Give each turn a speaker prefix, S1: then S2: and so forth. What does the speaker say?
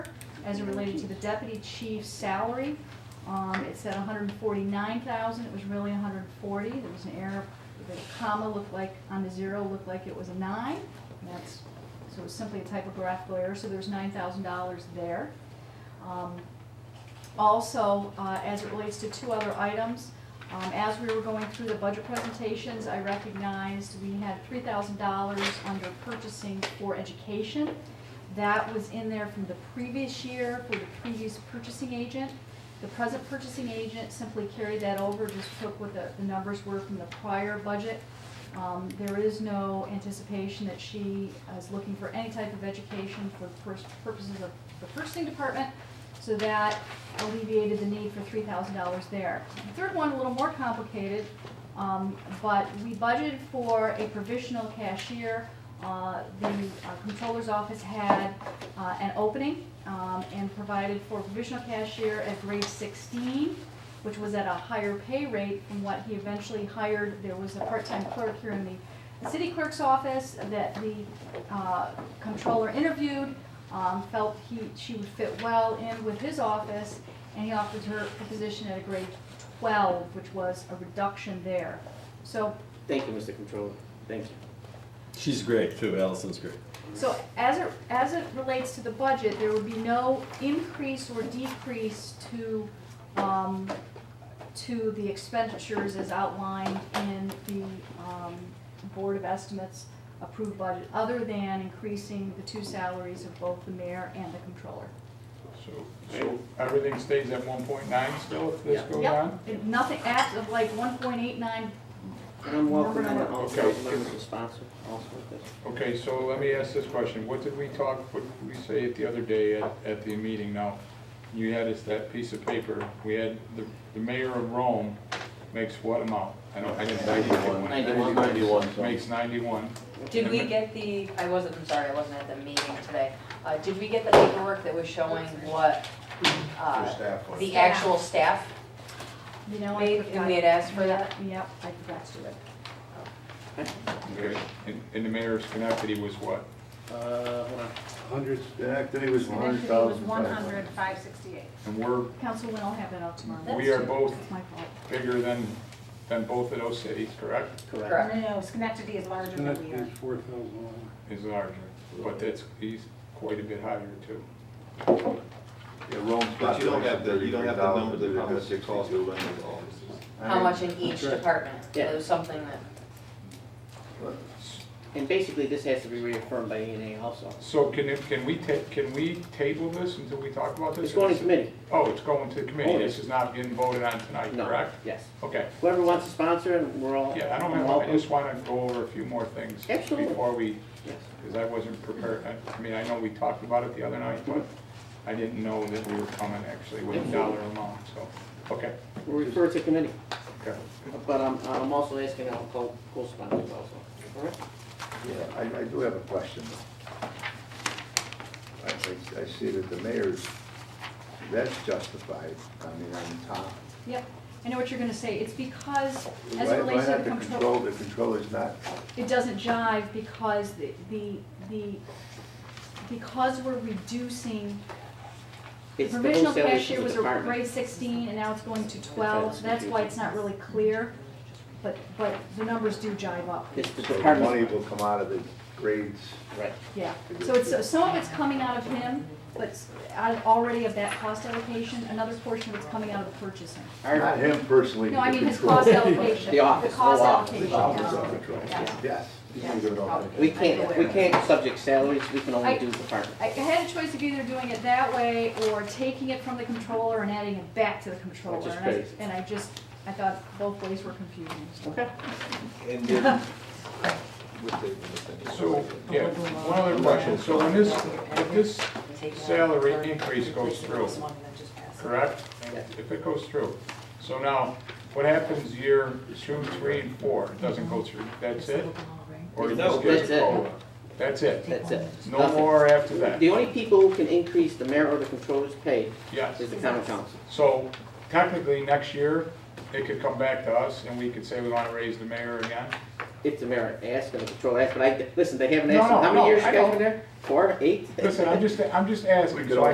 S1: as it related to the deputy chief's salary. Um, it said hundred and forty-nine thousand, it was really hundred and forty, there was an error, the comma looked like, on the zero, looked like it was a nine. And That's, so it was simply a typographical error, so there's nine thousand dollars there. Um, also, uh, as it relates to two other items, um, as we were going through the budget presentations, I recognized we had three thousand dollars under purchasing for education. That was in there from the previous year for the previous purchasing agent. The present purchasing agent simply carried that over, just took what the, the numbers were from the prior budget. Um, there is no anticipation that she is looking for any type of education for pers- purposes of the purchasing department. So that alleviated the need for three thousand dollars there. The third one, a little more complicated, um, but we budgeted for a provisional cashier. Uh, the uh, comptroller's office had, uh, an opening, um, and provided for provisional cashier at grade sixteen, which was at a higher pay rate than what he eventually hired. There was a part-time clerk here in the city clerk's office that the, uh, comptroller interviewed um, felt he, she would fit well in with his office, and he offered her a position at a grade twelve, which was a reduction there. So,
S2: Thank you, Mr. Controller. Thank you.
S3: She's great too, Allison's great.
S1: so as it, as it relates to the budget, there would be no increase or decrease to, um, to the expenditures as outlined in the, um, Board of Estimates approved budget, other than increasing the two salaries of both the mayor and the comptroller.
S4: So, so everything stays at one point nine still if this
S2: Yeah.
S4: goes
S1: Yep,
S4: on?
S1: it- nothing, abs of like one point eight nine,
S2: And I'm welcoming
S1: Number
S2: an
S1: nine.
S2: officer,
S4: Okay.
S2: a sponsor also with this.
S4: Okay, so let me ask this question. What did we talk, what did we say it the other day at, at the meeting now? You had us that piece of paper, we had the, the mayor of Rome makes what amount? I don't, I didn't. write that one.
S2: Ninety-one.
S4: Makes ninety-one.
S5: Did we get the, I wasn't, I'm sorry, I wasn't at the meeting today. Uh, did we get the paperwork that was showing what, uh, the actual staff?
S1: you know, I
S5: Wait,
S1: forgot.
S5: we had asked for that?
S1: Yep, I forgot to do it.
S4: Okay, and, and the mayor's Schenectady was what?
S2: Uh, hold on.
S6: Hundred, that day was
S7: And
S6: hundred
S7: then it was
S6: thousand.
S7: one hundred, five sixty-eight.
S4: And we're
S1: Council Wynn will have that out tomorrow.
S4: We are both-
S1: It's my fault.
S4: bigger than, than both of those cities, correct?
S5: Correct.
S7: No, Schenectady is larger
S6: That
S7: than we are.
S6: is four thousand one.
S4: Is larger, but that's, he's quite a bit higher too.
S8: Yeah, Rome's
S9: But you don't have the, you don't have the numbers of how much
S8: $33,000,
S9: it costs to run those
S5: How much in each
S6: Correct.
S5: department?
S2: Yeah.
S5: It was something that,
S2: And basically, this has to be reaffirmed by E and A also.
S4: So can it, can we ta, can we table this until we talk about this?
S2: It's going to committee.
S4: Oh, it's going to the committee,
S2: Oh,
S4: this
S2: yes.
S4: is not getting voted on tonight,
S2: No.
S4: correct?
S2: Yes.
S4: Okay,
S2: Whoever wants to sponsor, and we're all.
S4: yeah, I don't
S2: we're
S4: have, I
S2: welcome.
S4: just wanna go over a few more things.
S2: Absolutely.
S4: Before we,
S2: Yes.
S4: cause I wasn't prepared, I, I mean, I know we talked about it the other night, but
S2: Mm-hmm.
S4: I didn't know that we were coming actually with a dollar amount, so, okay,
S2: We'll refer to committee,
S4: okay.
S2: but I'm, I'm also asking our co- co-sponsors also. All right?
S8: Yeah, I, I do have a question. though. I, I- I see that the mayor's, that's justified, I mean, on top.
S1: Yep, I know what you're gonna say, it's because, as
S8: Why-
S1: it relates to the
S8: Why not the control,
S1: comptroller,
S8: the control is not,
S1: it doesn't jive because the, the, the, because we're reducing, the
S2: It's the
S1: provisional
S2: wholesalers
S1: cashier
S2: of the
S1: was a
S2: department.
S1: grade sixteen, and now it's going to twelve,
S2: That's
S1: that's why it's not really clear, but, but the numbers do jive up,
S2: It's the
S8: so the money
S2: department.
S8: will come out of the grades.
S2: Right.
S1: yeah. So it's, so some of it's coming out of him, but s- out of- already of that cost allocation, another portion of it's coming out of the purchasing.
S2: Our-
S8: Not him personally.
S1: No, I mean his
S8: control.
S1: cost allocation.
S2: The office,
S1: cost allocation,
S2: the office.
S8: The office
S1: yeah.
S8: of control,
S1: Yeah.
S8: yes.
S2: We can't, we can't subject salaries, we can only
S1: I-
S2: do department.
S1: I I had a choice of either doing it that way or taking it from the controller and adding it back to the controller.
S2: Which is
S1: And I-
S2: crazy.
S1: And I just, I thought both ways were confusing.
S2: Okay.
S8: And then, with the- with the-
S4: So, yeah, one other question, so when this, if this salary increase goes through, correct? If it goes through, so now, what happens year two, three, and four, it doesn't go through, that's it? Or it just
S2: That's
S4: gets a
S2: it.
S4: COLA? That's it,
S2: That's it.
S4: no
S2: Nothing.
S4: more after that,
S2: The only people who can increase the mayor or the controller's pay
S4: yes.
S2: is the common council.
S4: So technically, next year, it could come back to us, and we could say we wanna raise the mayor again?
S2: If the mayor asks and the controller asks, but I, listen, they haven't
S4: No,
S2: asked,
S4: no,
S2: how
S4: no,
S2: many years
S4: I
S2: you guys
S4: know.
S2: been there? Four, eight?
S4: Listen, I'm just, I'm just asking, so I